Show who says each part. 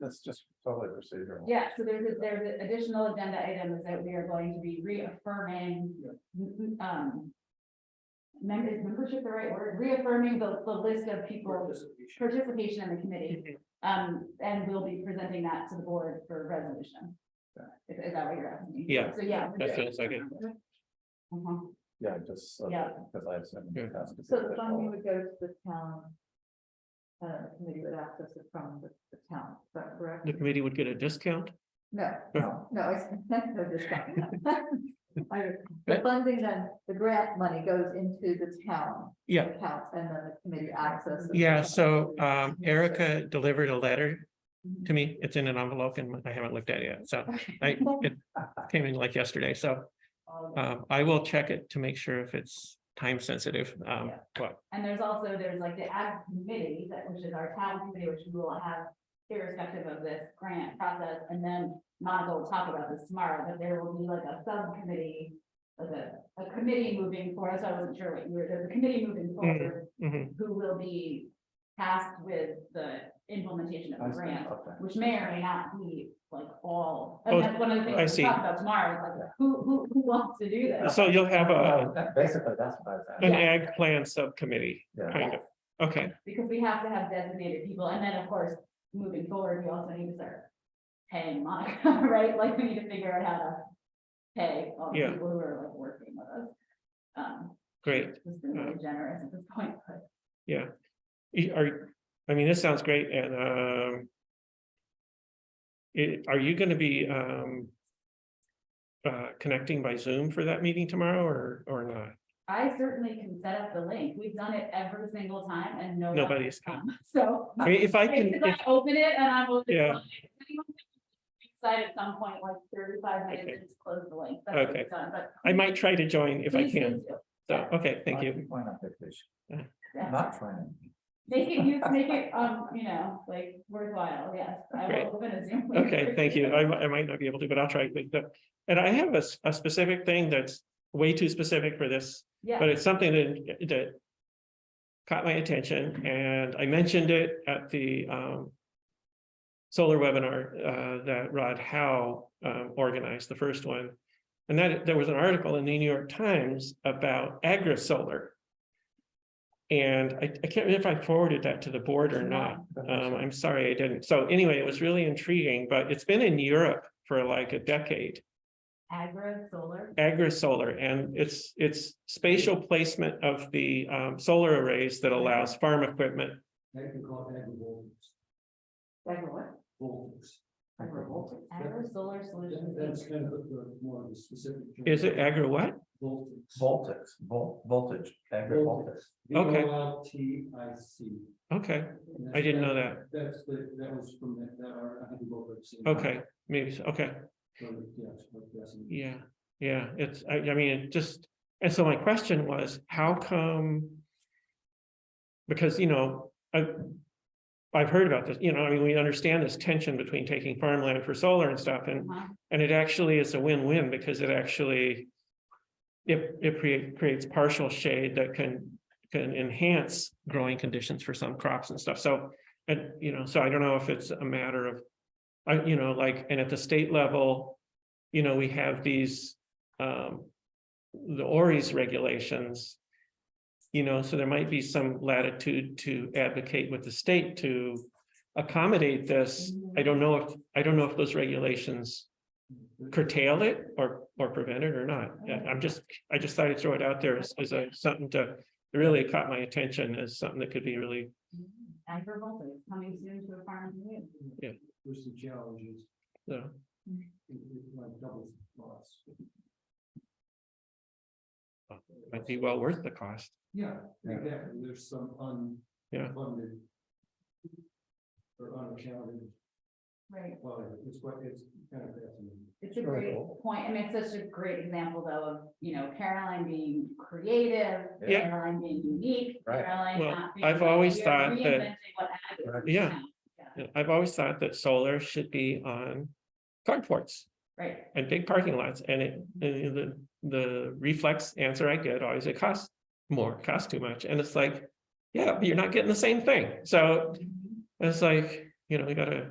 Speaker 1: That's just totally procedural.
Speaker 2: Yeah, so there's, a- there's additional agenda items that we are going to be reaffirming, um. Member, is membership the right word, reaffirming the, the list of people, participation in the committee. Um, and we'll be presenting that to the board for resolution. Is, is that what you're asking? me?
Speaker 3: Yeah,
Speaker 2: So, yeah.
Speaker 3: that sounds like it.
Speaker 2: Uh-huh.
Speaker 1: Yeah, just. so-
Speaker 2: Yeah.
Speaker 1: Because I have some.
Speaker 3: Yeah.
Speaker 4: So the funding would go to the town. Uh, committee would access it from the, the town, is that correct?
Speaker 3: The committee would get a discount?
Speaker 4: No,
Speaker 1: No.
Speaker 4: no, I s- no discount. I- The funding then, the grant money goes into the town.
Speaker 3: Yeah.
Speaker 4: Accounts and then the committee accesses.
Speaker 3: Yeah, so um Erica delivered a letter to me. It's in an envelope and I haven't looked at it yet, so I, it came in like yesterday, so. Um, I will check it to make sure if it's time sensitive, um, but
Speaker 2: And there's also, there's like the ad committee, that which is our town committee, which we will have irrespective of this grant process, and then Monica will talk about this tomorrow, but there will be like a subcommittee. Like a, a committee moving forward, so I wasn't sure what you were, there's a committee
Speaker 3: Hmm.
Speaker 2: moving forward
Speaker 3: mhm,
Speaker 2: who will be tasked with the implementation of
Speaker 1: I
Speaker 2: the
Speaker 1: see,
Speaker 2: grant.
Speaker 1: okay.
Speaker 2: Which may or may not be like all,
Speaker 3: Oh,
Speaker 2: and that's one of the
Speaker 3: I
Speaker 2: things
Speaker 3: see.
Speaker 2: we talk about tomorrow, is like, who, who, who wants to do this?
Speaker 3: so you'll have a
Speaker 1: That- Basically, that's what I was
Speaker 3: an
Speaker 1: asking.
Speaker 3: ag plan subcommittee,
Speaker 1: Yeah.
Speaker 3: kind of, okay,
Speaker 2: Because we have to have designated people, and then, of course, moving forward, we also need to start paying Monica, right? Like, we need to figure out how to pay all the
Speaker 3: Yeah.
Speaker 2: people who are like working with us. Um,
Speaker 3: great,
Speaker 2: Just been really generous at this point, but
Speaker 3: yeah. Y- Are, I mean, this sounds great and um. i- are you gonna be um? Uh, connecting by Zoom for that meeting tomorrow or or not?
Speaker 2: I certainly can set up the link. We've done it every single time and no. one
Speaker 3: Nobody's
Speaker 2: has come. So
Speaker 3: I mean, if I can,
Speaker 2: if
Speaker 3: if-
Speaker 2: I open it and I'm open.
Speaker 3: Yeah.
Speaker 2: Side at some point, like thirty-five minutes,
Speaker 3: Okay.
Speaker 2: and just close the link. That's what
Speaker 3: Okay.
Speaker 2: we've done, but
Speaker 3: I might try to join if I
Speaker 2: please do
Speaker 3: can.
Speaker 2: too.
Speaker 3: So, okay, thank you.
Speaker 1: Why not vacation?
Speaker 2: Yeah.
Speaker 1: Not training.
Speaker 2: Make it use, make it, um, you know, like worthwhile, yes. I
Speaker 3: Great.
Speaker 2: will open a Zoom. link
Speaker 3: Okay,
Speaker 2: for
Speaker 3: thank you. I, mi- I might not be able to, but I'll try. But the- And I have a, s- a specific thing that's way too specific for this, but
Speaker 2: Yeah,
Speaker 3: it's something that, that caught my attention and I mentioned it at the, um, solar webinar, uh, that Rod Howe, um, organized, the first one. And that, there was an article in the New York Times about agri-solar. And I, I can't remember if I forwarded that to the board or not. Um, I'm sorry I didn't. So anyway, it was really intriguing, but it's been in Europe for like a decade,
Speaker 2: agro solar.
Speaker 3: agri-solar, and it's, it's spatial placement of the, um, solar arrays that allows farm equipment.
Speaker 5: That could call that revolves,
Speaker 4: Like what?
Speaker 5: revolves.
Speaker 2: Agro solar solution.
Speaker 5: That's kind of the more of the specific.
Speaker 3: Is it agri what?
Speaker 5: Voltage.
Speaker 1: Voltage, vol- voltage, agri voltage.
Speaker 3: Okay.
Speaker 5: T I C.
Speaker 3: Okay, I didn't know that.
Speaker 5: That's the, that was from that, that are, I think. both have seen that.
Speaker 3: okay, maybe, so. okay,
Speaker 5: So, yeah, it's what that's in-
Speaker 3: yeah, yeah, it's, I, I mean, it just, and so my question was, how come? Because, you know, I, I've heard about this, you know, I mean, we understand this tension between taking farmland for solar and stuff, and
Speaker 2: Uh-huh.
Speaker 3: And it actually is a win-win because it actually. It it crea- creates partial shade that can can enhance growing conditions for some crops and stuff. So. And you know, so I don't know if it's a matter of, I, you know, like, and at the state level. You know, we have these um. The ORI's regulations. You know, so there might be some latitude to advocate with the state to accommodate this. I don't know if, I don't know if those regulations curtail it or, or prevent it or not. Yeah, I'm just, I just thought I'd throw it out there as, as a, something to, it really caught my attention as something that could be really,
Speaker 2: Agro voltaic coming soon to a farm near you.
Speaker 5: There's some challenges,
Speaker 3: you know,
Speaker 5: it- it's like double loss.
Speaker 3: might be well worth the cost.
Speaker 5: Yeah,
Speaker 1: Yeah.
Speaker 5: exactly, there's some un.
Speaker 3: Yeah.
Speaker 5: Funded. Or unaccounted,
Speaker 2: Right.
Speaker 5: well, it's what, it's kind of fascinating.
Speaker 2: It's a great
Speaker 1: Sure.
Speaker 2: point. I mean, it's such a great example though of, you know, Caroline being creative,
Speaker 3: Yeah.
Speaker 2: Caroline being unique,
Speaker 1: Right.
Speaker 2: Caroline
Speaker 3: Well,
Speaker 2: not. being
Speaker 3: I've
Speaker 2: like,
Speaker 3: always
Speaker 2: we are
Speaker 3: thought that-
Speaker 2: reinventing what ag is
Speaker 1: Right.
Speaker 3: Yeah.
Speaker 2: now.
Speaker 3: You know, I've always thought that solar should be on carports
Speaker 2: Right,
Speaker 3: and big parking lots and it, and the, the reflex answer I get always, it costs more, it costs too much. And it's like, yeah, but you're not getting the same thing. So it's like, you know, we gotta